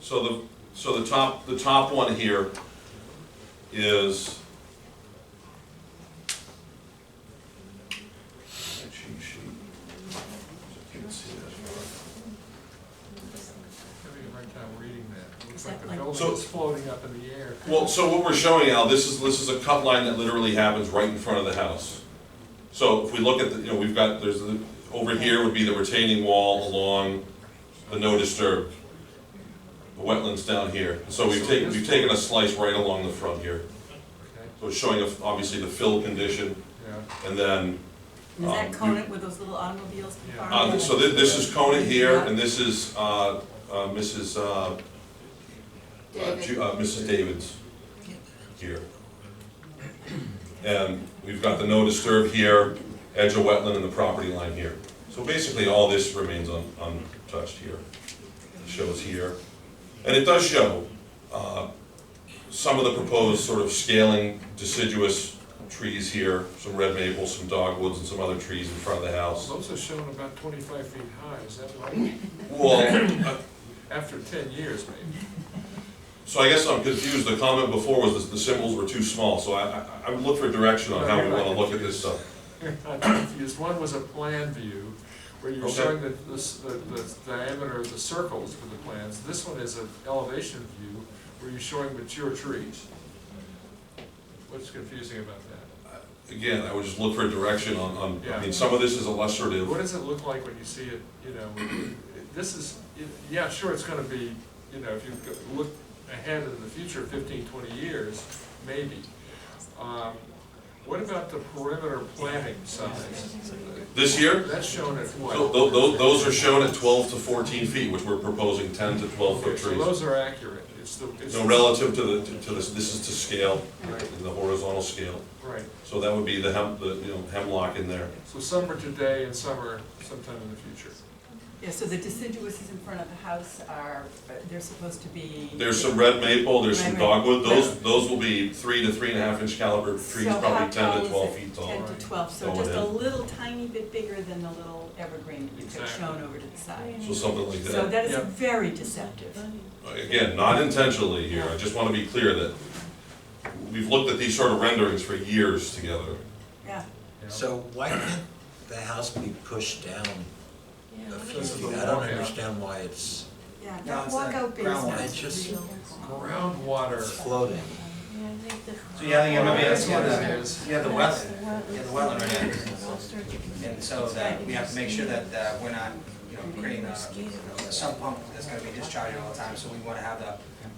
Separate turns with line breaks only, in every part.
So the, so the top, the top one here is. Cheat sheet. You can see that.
Having a hard time reading that. Looks
Is
like
that
the
like-
building
So-
is floating up in the air.
Well, so what we're showing now, this is, this is a cut line that literally happens right in front of the house. So if we look at the, you know, we've got, there's, the- over here would be the retaining wall along the no disturb. The wetlands down here, so we've taken, we've taken a slice right along the front here.
Okay,
So it's showing of- obviously the fill condition,
yeah,
and then,
Is
Um,
that Conant
you-
with those little automobiles? in the
Yeah.
far
uh,
end?
so thi- this is Coney here, and this is, uh, uh, Mrs., uh, uh,
David.
Ju- uh, Mrs. Davids here. And we've got the no disturb here, edge of wetland and the property line here. So basically, all this remains un- untouched here. It shows here. And it does show uh, some of the proposed sort of scaling deciduous trees here, some red maples, some dogwoods, and some other trees in front of the house.
those are shown about twenty-five feet high, is that right?
Well, uh,
After ten years, maybe.
So I guess I'm confused, the comment before was that the symbols were too small, so I, I- I would look for direction on how we wanna look at this stuff.
I'm confused. One was a plan view, where you were
Okay.
showing the, the s- the, the diameter of the circles for the plans. This one is an elevation view, where you're showing mature trees. What's confusing about that?
Again, I would just look for direction on, on, I
Yeah.
mean, some of this is
What
illustrative.
does it look like when you see it, you know, this is, yeah, sure, it's gonna be, you know, if you go- look ahead in the future, fifteen, twenty years, maybe. Um, What about the perimeter planting size?
This here,
That's shown at what?
so tho- tho- those are shown at twelve to fourteen feet, which we're proposing ten to twelve
Okay,
foot
so
trees.
those are accurate, it's the, it's.
No, relative to the, to- to this, this is to scale,
Right,
in the horizontal scale,
Right,
so that would be the hem, the, you know, hemlock in there.
so some are today and some are sometime in the future.
Yeah, so the deciduous in front of the house are, they're supposed to be.
There's some red maple, there's some
Right, right.
dogwood, those, those will be three to three and a half inch caliber trees,
So how
probably
tall
ten to
is
twelve
it?
feet tall.
Ten to twelve, so
Going
just a
in.
little tiny bit bigger than the little evergreen that you've got
Exactly.
shown over to the side.
So something like
So
that.
that is
Yeah.
very deceptive.
Again, not intentionally here, I just want to be clear that we've looked at these sort of renderings for years together.
Yeah,
you know?
So why can't the house be pushed down a few
Because of the
feet? I don't
layout.
understand why it's
yeah,
No,
that
it's
walkout
not
groundwater,
basement
it's
is
just-
real.
Groundwater,
floating.
So yeah, I think MMA has, yeah,
Is-
the, yeah, the wet, yeah, the wetland right now. And so that, we have to make sure that, uh we're not, you know, creating a, you know, a sump pump that's gonna be discharging all the time, so we wanna have the,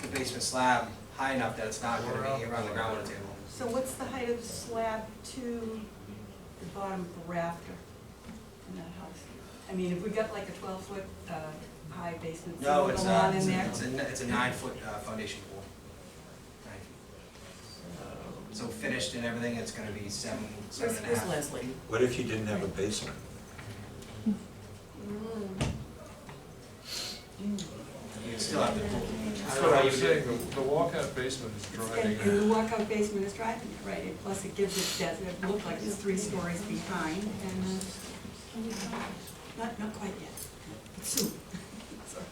the basement slab high enough that it's not gonna be around the groundwater table.
So what's the height of the slab to the bottom of the rafter in that house? I mean, if we got like a twelve foot, uh, high basement, so
No, it's
the
not,
lawn
it's
in
a,
there?
it's a, it's a nine foot, uh, foundation pool. Nine feet. So finished and everything, it's gonna be seven, seven
Where's,
and a half.
where's Leslie?
What if you didn't have a basement?
You still have the pool.
that's what I was saying, the the walkout basement is driving.
And and the walkout basement is driving it, right? And Plus it gives it that, it looked like it's three stories behind and, uh, not, not quite yet. Soon. Sorry.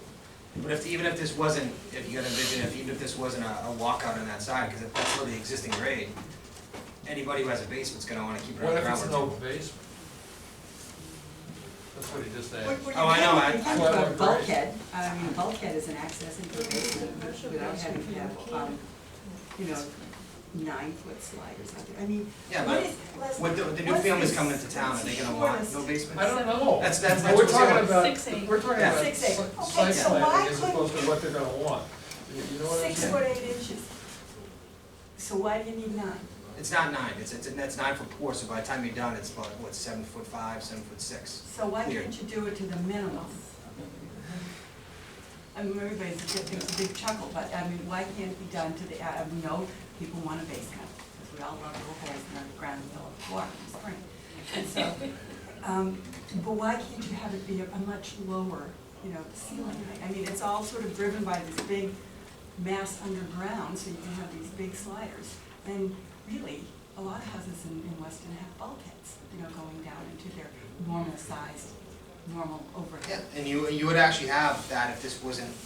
But if, even if this wasn't, if you gotta envision, if, even if this wasn't a, a walkout on that side, because if that's still the existing grade, anybody who has a basement's gonna wanna keep it on
What
the
if
ground.
it's an open basement? That's what he just
What-
asked.
what
Oh, I
you
know,
have-
I-
You have to have
Well,
bulkhead, I mean, bulkhead is an access into the basement without having to have, um, you know, nine foot slide or something, I mean,
Yeah,
what
but
is, Leslie?
With the, the new
what's
families
the
coming into town, are they gonna want no
shortest-
basement?
I don't know.
That's- that's-
But We're
that's
talking
what-
about,
Six, eight.
we're talking
Yeah.
about
Six, eight.
si-
Okay,
site
so
planning
why
as
could-
opposed to what they're gonna want. You you know what I'm
Six
saying?
foot eight inches. So why do you need nine?
It's not nine, it's, it's, that's nine foot four, so by the time you're done, it's about, what, seven foot five, seven foot six?
So why
Here.
can't you do it to the minimum? I mean, everybody's, it's a big chuckle, but I mean, why can't it be done to the, I mean, no, people want a basement, because we all love little holes in the ground and fill up the water in the spring. And so, um, but why can't you have it be a a much lower, you know, ceiling height? I mean, it's all sort of driven by this big mass underground, so you can have these big sliders. And really, a lot of houses in, in Weston have bulkheads, you know, going down into their normal sized, normal overhead.
Yeah, and you, you would actually have that if this wasn't